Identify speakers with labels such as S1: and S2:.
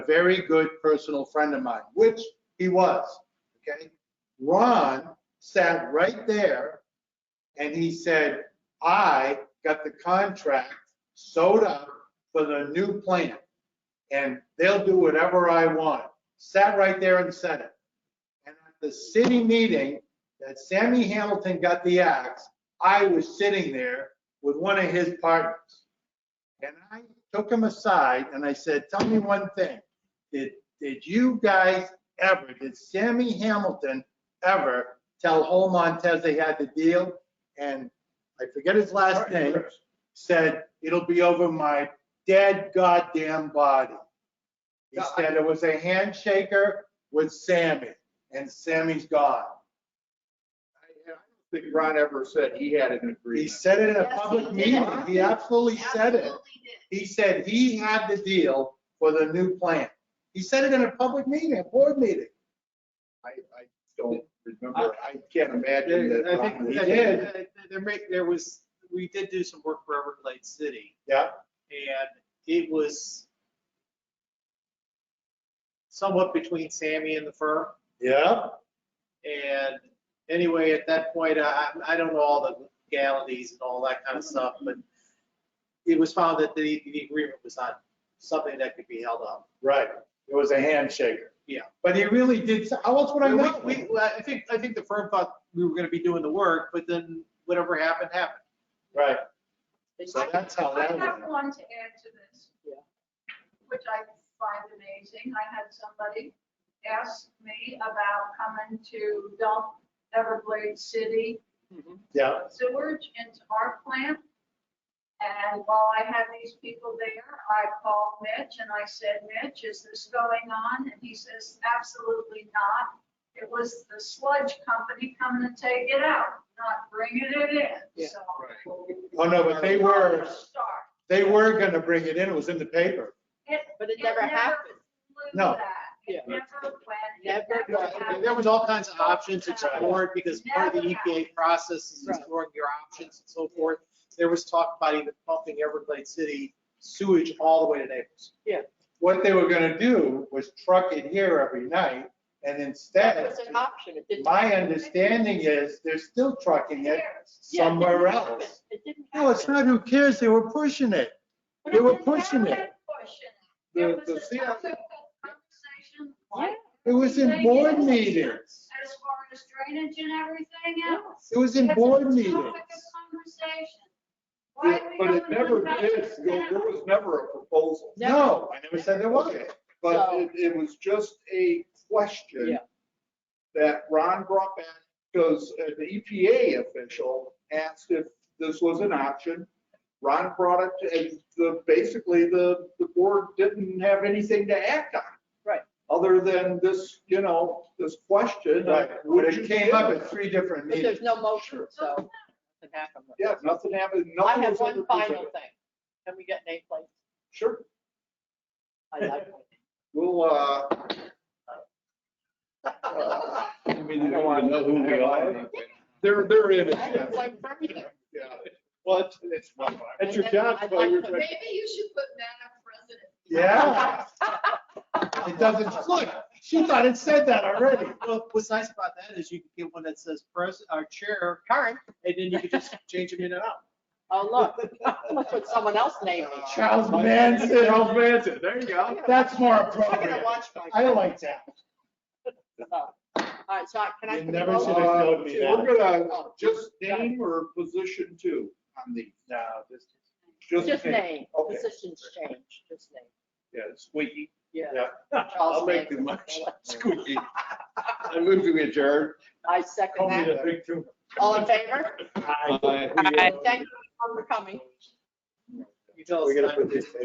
S1: a very good personal friend of mine, which he was, okay? Ron sat right there and he said, I got the contract sewed up for the new plant and they'll do whatever I want. Sat right there and said it. And at the city meeting that Sammy Hamilton got the axe, I was sitting there with one of his partners. And I took him aside and I said, tell me one thing. Did, did you guys ever, did Sammy Hamilton ever tell Hol Montez they had the deal? And I forget his last name, said, it'll be over my dead goddamn body. He
S2: Yeah, I-
S1: said it was a handshaker with Sammy and Sammy's gone.
S2: I don't think Ron ever said he had an
S1: He
S2: agreement.
S1: said it in a
S3: Yes, he
S1: public
S3: did.
S1: meeting. He absolutely said it.
S3: Absolutely did.
S1: He said he had the deal for the new plant. He said it in a public meeting, a board meeting.
S2: I, I don't remember. I can't imagine that.
S4: I
S2: Ron-
S4: think,
S1: He
S4: I
S1: did.
S4: think that there may, there was, we did do some work for Everglades City
S1: Yeah,
S4: and it was somewhat between Sammy and the firm.
S1: yeah.
S4: And anyway, at that point, I, I don't know all the legalities and all that kind of stuff, but it was found that the, the agreement was not something that could be held up.
S1: Right. It was a handshaker.
S4: Yeah.
S1: But he really did, say- how else would I
S4: We-
S1: know?
S4: we- well, I think, I think the firm thought we were gonna be doing the work, but then whatever happened, happened.
S1: Right. So
S3: I-
S1: that's how
S3: I
S1: that
S3: have
S1: went.
S3: one to add to this.
S4: Yeah.
S3: Which I find amazing. I had somebody ask me about coming to dump Everglades City
S1: Yeah,
S3: sewage into our plant. And while I had these people there, I called Mitch and I said, Mitch, is this going on? And he says, absolutely not. It was the sludge company coming to take it out, not bringing it in, so.
S1: Oh, no, but they were,
S3: Start.
S1: they were gonna bring it in. It was in the paper.
S5: But it never happened.
S3: flew
S1: No.
S3: that. It
S2: Yeah.
S3: never went. It
S5: Never
S3: never
S5: went.
S3: happened.
S4: There was all kinds of options explored because part of the EPA process is exploring your options and so forth. There was talk about even pumping Everglades City sewage all the way to Naples.
S1: What they were gonna do was truck it here every night and
S5: That
S1: instead,
S5: was an option. It didn't.
S1: my understanding is they're still trucking it
S3: Years.
S5: Yeah, it didn't
S1: somewhere
S5: happen.
S1: else.
S5: It didn't happen.
S1: No, it's not who cares, they were pushing it.
S5: But
S1: they
S5: it
S1: were
S5: didn't
S1: pushing
S5: happen.
S1: it.
S3: Question.
S1: The-
S3: It was
S1: the
S3: a
S1: CFO
S3: topic of conversation.
S5: Yeah.
S1: It was in board meetings.
S3: As far as drainage and everything else.
S1: It was in
S3: It's a
S1: board
S3: topic of
S1: meetings.
S3: Conversation. Why
S2: But
S3: we
S2: but it
S3: haven't
S2: never
S3: done
S2: did,
S3: this
S2: there there
S3: now?
S2: was never a proposal.
S1: No, I never said there was.
S2: But
S5: So-
S2: it, it was just a question
S5: Yeah.
S2: that Ron brought back because uh, the EPA official asked if this was an option. Ron brought it, to- and the, basically the, the board didn't have anything to act on.
S5: Right.
S2: Other than this, you know, this question. of,
S1: Right,
S2: would
S1: but
S2: you
S1: it came up
S2: do
S1: at three different
S5: But
S1: meetings.
S5: there's no motion, so it happened.
S2: it? Yeah, nothing happened.
S5: I
S2: nothing
S5: have
S2: was ever
S5: one final
S2: presented.
S5: thing. Can we get nameplates?
S2: Sure,
S5: I like it.
S2: we'll, uh.
S6: I mean, you don't want to know who we are.
S2: They're, they're in it.
S5: I have one for everything.
S2: Yeah. Well, it's, it's, it's your
S5: And
S2: job,
S5: I'd
S2: so you're
S5: like to-
S2: trying-
S3: Maybe you should put Madam President.
S1: Yeah. It doesn't, look, she thought it said that already.
S4: Well, what's nice about that is you can get one that says pres, or chair,
S5: Current,
S4: and then you can just change them in and out.
S5: oh, look, I'm gonna put someone else name. it.
S1: Charles Manson.
S2: Charles Manson, there you go.
S1: That's more
S5: I'm gonna
S1: appropriate.
S5: watch
S1: I
S5: my.
S1: like that.
S5: Oh. All right, so I- can I?
S1: You never should have
S2: Uh,
S1: showed me that. Oh,
S2: We're gonna just name or position two on the,
S1: No, just,
S5: Just name,
S2: Okay.
S5: positions change, just name.
S2: Yeah, squeaky.
S5: Yeah.
S1: yeah.
S5: Charles
S6: I'll make the
S5: Manson.
S6: motion. Squeaky. I move to adjourn.
S5: I
S1: Call
S5: second
S1: me
S5: that.
S1: the big two.
S5: All in favor?
S1: Aye.
S6: Aye.
S5: Thank you for coming.
S4: You tell us.
S6: We're gonna
S2: Oh,
S4: time.
S6: put this.